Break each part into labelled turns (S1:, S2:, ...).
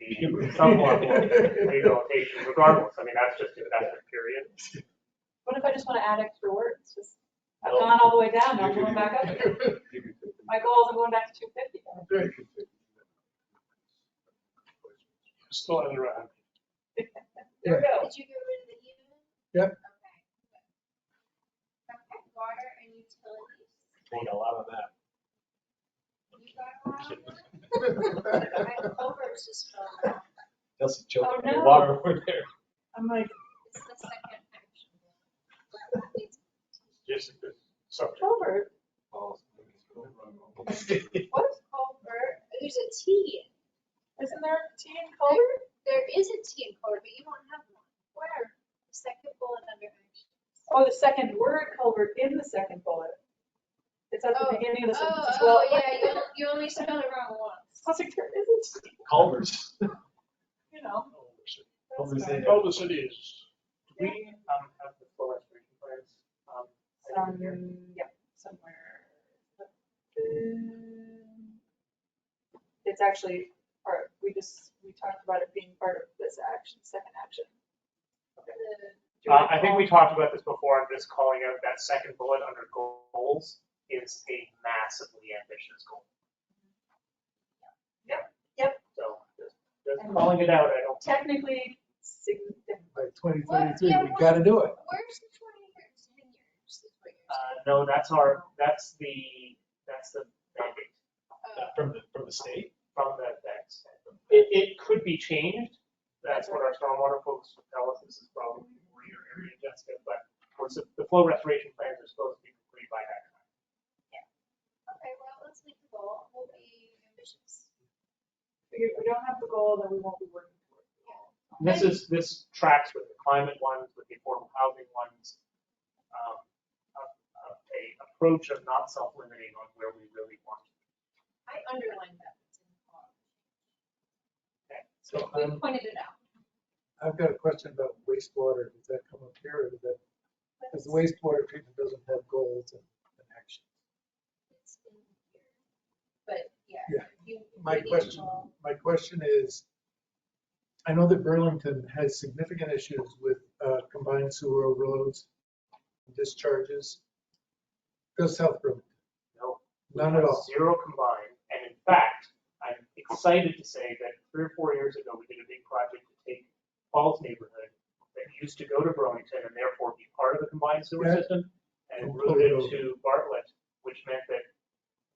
S1: you do some form of rehabilitation regardless. I mean, that's just investment period.
S2: What if I just want to add extra words? Just, I've
S1: Well-
S2: gone all the way down, now I'm going back up again. My goal is I'm going back to two fifty.
S3: Still under a hundred.
S2: There we go.
S4: Did you get rid of the human?
S5: Yep.
S4: Okay. good. Okay, water and utilities,
S3: We got a lot of that.
S4: you got a lot of them? I over just fell off.
S3: That's a joke.
S2: Oh, no.
S3: Water over there.
S2: I'm like,
S4: It's the second action.
S3: Yes, it is. Subject.
S2: Covert, what is
S4: Culvert, there's a T, in-
S2: Isn't there a T in Covert?
S4: there is a T in culvert, but you don't have one. Where? The Second bullet under action.
S2: Oh, the second word Culvert in the second bullet. It's at the
S4: Oh,
S2: beginning of the
S4: Oh,
S2: sentence as well.
S4: oh, yeah, you, on- you only spelled it wrong once.
S2: I was like, there isn't,
S3: Culvers.
S2: you know.
S3: Oh,
S2: that's
S3: Culver
S2: fine.
S3: City.
S1: Culver City is. Do we, um, have the full restoration plans? Um, I think here.
S2: Some, yeah, somewhere. Um, It's actually, part. we just, we talked about it being part of this action, second action.
S4: The-
S2: Do you
S1: Uh, I think
S2: recall?
S1: we talked about this before, I'm just calling out that second bullet under goals is a massively ambitious goal.
S2: Yep. Yep.
S1: So, just, just calling it out, I don't.
S2: Technically, significant.
S5: By twenty thirty-three, we gotta do it.
S4: Where's the twenty years, ten years? is what you're saying?
S1: Uh, no, that's our, that's the, that's the mandate
S4: Oh.
S3: From the, from the state?
S1: from the text. It, it could be changed, that's what our stormwater folks would tell us, this is probably more your area, Jessica, but we're sup- the flow restoration plans are supposed to be complete by that time.
S4: Okay, well, let's make the goal, we'll be ambitious.
S2: If we don't have the goal, then we won't be working towards the goal.
S1: This is, this tracks with the climate ones, with the affordable housing ones. um, A, a a approach of not self-limiting on where we really want. to
S4: I underlined that. It's in the call.
S1: be.
S5: So
S4: We
S5: I'm,
S4: pointed it out.
S5: I've got a question about wastewater. Does that come up here or does that, because the wastewater treatment doesn't have goals and and action.
S4: It's in here. But, yeah.
S5: Yeah.
S4: you- you
S5: My
S4: need to
S5: question,
S4: call.
S5: my question is, I know that Burlington has significant issues with uh, combined sewer overloads, discharges. Go South Burlington,
S1: No, We
S5: none at
S1: have
S5: all.
S1: Zero combined, and in fact, I'm excited to say that three or four years ago, we did a big project to take Falls neighborhood that used to go to Burlington and therefore be part of the combined sewer
S5: Yeah.
S1: system and
S5: And
S1: route it
S5: pull it
S1: to Bartlett, which meant that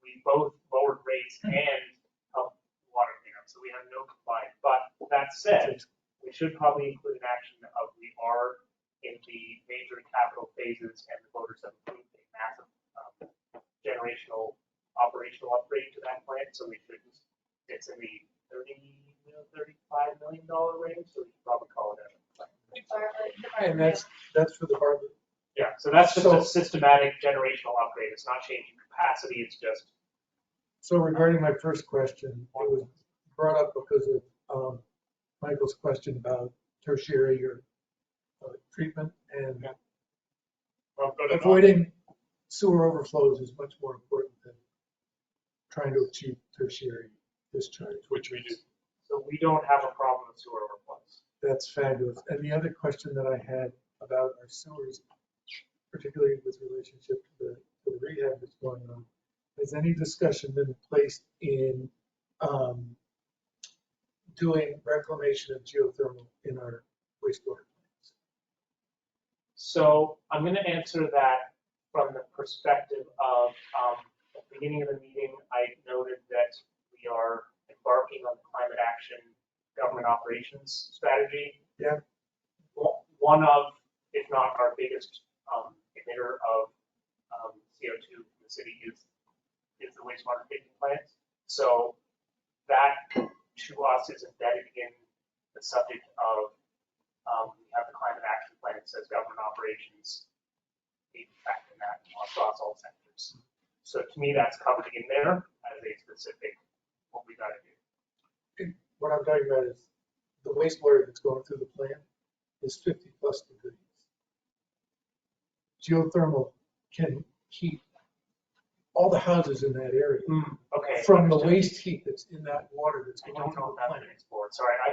S1: we both lowered rates and helped water cleanup, so we have no combined. But that said, we should probably include an action of we are in the major capital phases and the voters have approved a massive um, generational operational upgrade to that plant, so we should, it's in the thirty, thirty-five million dollar range, so we should probably call it out.
S4: Bartlett, the
S5: And
S4: Bartlett.
S5: that's, that's for the Bartlett.
S1: Yeah, so that's just a
S5: So-
S1: systematic generational upgrade, it's not changing capacity, it's just,
S5: So regarding my first question, it was brought up because of um, Michael's question about tertiary or uh, treatment and
S3: Well, good enough.
S5: avoiding sewer overflows is much more important than trying to achieve tertiary discharge.
S3: Which we do.
S1: so we don't have a problem with sewer overflows.
S5: That's fabulous. And the other question that I had about our sewers, particularly with relationship to the, to the rehab that's going on, has any discussion been placed in, um, doing reclamation of geothermal in our wastewater plants?
S1: So I'm going to answer that from the perspective of, um, at the beginning of the meeting, I noted that we are embarking on the climate action government operations strategy.
S5: Yeah.
S1: Wa- One of, if not our biggest, um, emitter of, um, CO2 in the city is, is the wastewater treatment plant. So that to us is embedded in the subject of um, we have the climate action plan that says government operations need to factor that across all sectors. So to me, that's covered in there as a specific, what we gotta do.
S5: What I'm talking about is the wastewater that's going through the plant is fifty plus degrees. Geothermal can heat all the houses in that area.
S1: Okay.
S5: From the waste heat that's in that water that's
S1: I
S5: going
S1: don't
S5: to
S1: know
S5: the
S1: if that's
S5: plant.
S1: been explored. Sorry, I